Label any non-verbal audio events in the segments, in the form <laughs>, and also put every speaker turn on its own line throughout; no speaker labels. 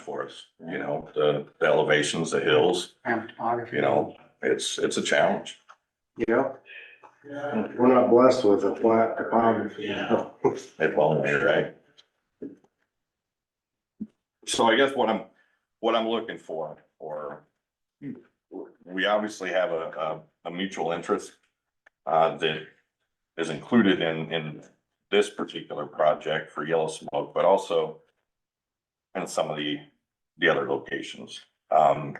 for us, you know, the, the elevations, the hills,
and topography.
you know, it's, it's a challenge.
Yeah. We're not blessed with a flat topography.
It won't be, right? So I guess what I'm, what I'm looking for, or we obviously have a, a, a mutual interest uh, that is included in, in this particular project for Yellow Smoke, but also in some of the, the other locations. Um,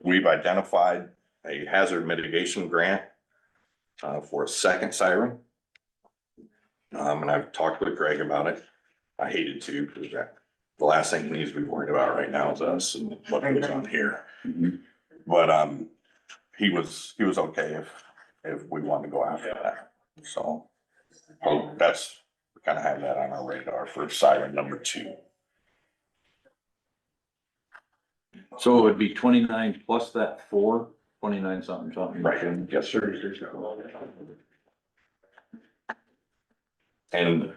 we've identified a hazard mitigation grant uh, for a second siren. Um, and I've talked with Greg about it. I hated to, because that, the last thing we need to be worried about right now is us and what goes on here. But, um, he was, he was okay if, if we wanted to go after that, so. Oh, that's, we kind of have that on our radar for siren number two.
So it would be twenty-nine plus that four, twenty-nine something, something.
<laughs> Yes, sir. And,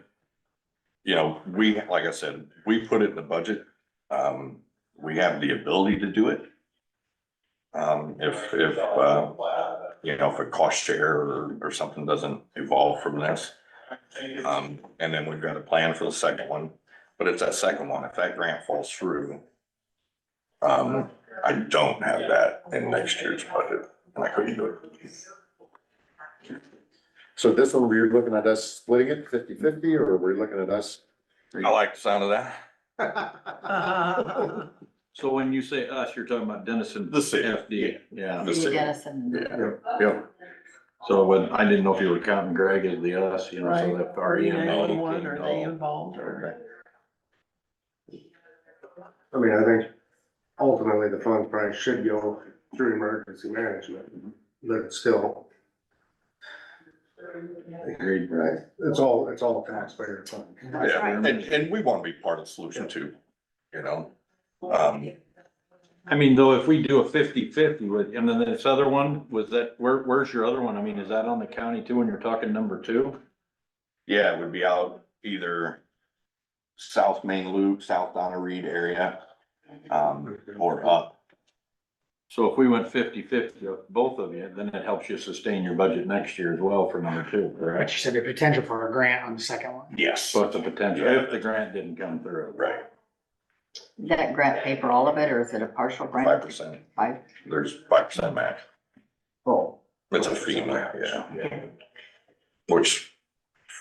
you know, we, like I said, we put it in the budget. Um, we have the ability to do it. Um, if, if, uh, you know, if a cost share or, or something doesn't evolve from this. Um, and then we've got a plan for the second one, but it's that second one. If that grant falls through, um, I don't have that in next year's budget and I couldn't do it.
So this one, we're looking at us splitting it 50-50, or we're looking at us?
I like the sound of that.
So when you say us, you're talking about Dennison
The city.
FD, yeah.
The
Steve
city.
Dennison.
Yeah.
Yep, yep.
So when, I didn't know if you were counting Greg as the us, you know, so
Right.
that E
Are
RE
you
and
the
all.
one, are they
all-
involved or?
I mean, I think ultimately the fund probably should go through emergency management, but still.
Agreed.
Right. It's all, it's all taxpayer fund.
That's
Yeah,
right.
and, and we want to be part of the solution too, you know? Um,
I mean, though, if we do a fifty-fifty with, and then this other one, was that, where, where's your other one? I mean, is that on the county too, when you're talking number two?
yeah, it would be out either South Main Loop, South Donna Reed area, um, or up.
So if we went fifty-fifty of both of you, then it helps you sustain your budget next year as well for number two,
But
correct?
you said the potential for a grant on the second one.
Yes.
So it's a potential, if the grant didn't come through.
Right,
That grant pay for all of it, or is it a partial grant?
five percent.
Five,
There's five percent match.
Oh.
It's a FEMA, yeah, which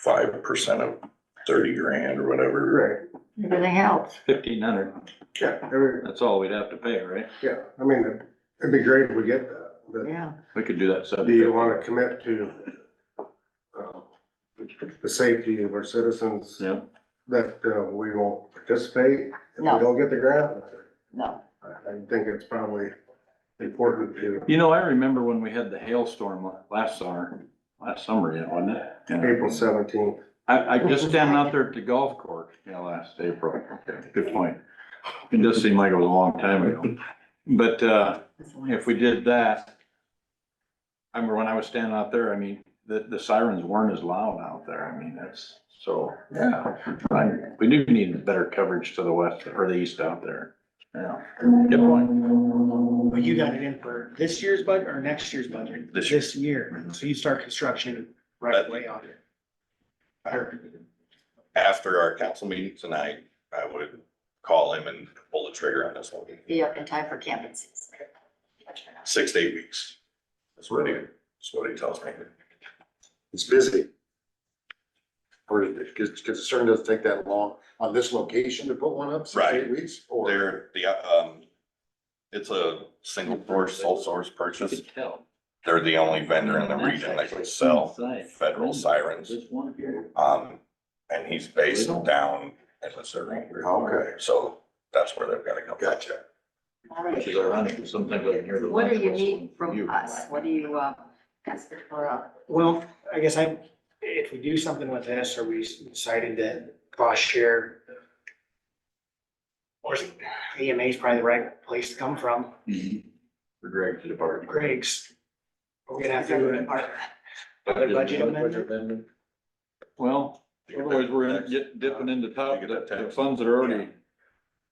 five percent of thirty grand or whatever.
Right,
it really helps.
Fifteen hundred,
yeah, every-
that's all we'd have to pay, right?
yeah, I mean, it'd be great if we get that, but.
Yeah,
We could do that sub.
Do you wanna commit to uh, the safety of our citizens
Yeah,
that uh, we won't participate if we
No.
don't get the grant?
no,
I I think it's probably important to
you know, I remember when we had the hailstorm la- last summer, last summer, yeah, wasn't it? Yeah.
April seventeenth.
I, I just standing out there at the golf course, yeah, last April, Okay, good point. It does seem like it was a long time ago, but, uh,
it's only-
if we did that. I remember when I was standing out there, I mean, the, the sirens weren't as loud out there, I mean, that's, so, yeah. I, we do need better coverage to the west or the east out there, yeah, good point.
But you got it in for this year's budget or next year's budget?
This year.
This year, so you start construction right away on it.
After our council meeting tonight, I would call him and pull the trigger on this one.
be up in time for camping season.
six to eight weeks. That's what he, that's what he tells me.
It's busy. Or because concern doesn't take that long on this location to put one up,
six, eight
weeks?
There, the, um, it's a single source, sole source purchase.
tell.
They're the only vendor in the region that can sell federal sirens. Um, and he's based down in Missouri.
Okay.
So that's where they've gotta go. Gotcha.
Which is ironic, sometimes I hear the.
What do you need from us? What do you, uh, ask for, uh,
Well, I guess I, if we do something with this, or we decided that cost share or is- EMA is probably the right place to come from,
For Greg to depart.
Greg's. We're gonna have to do it. Another budget amendment?
Well, otherwise we're in- get- dipping into top, the the funds that are already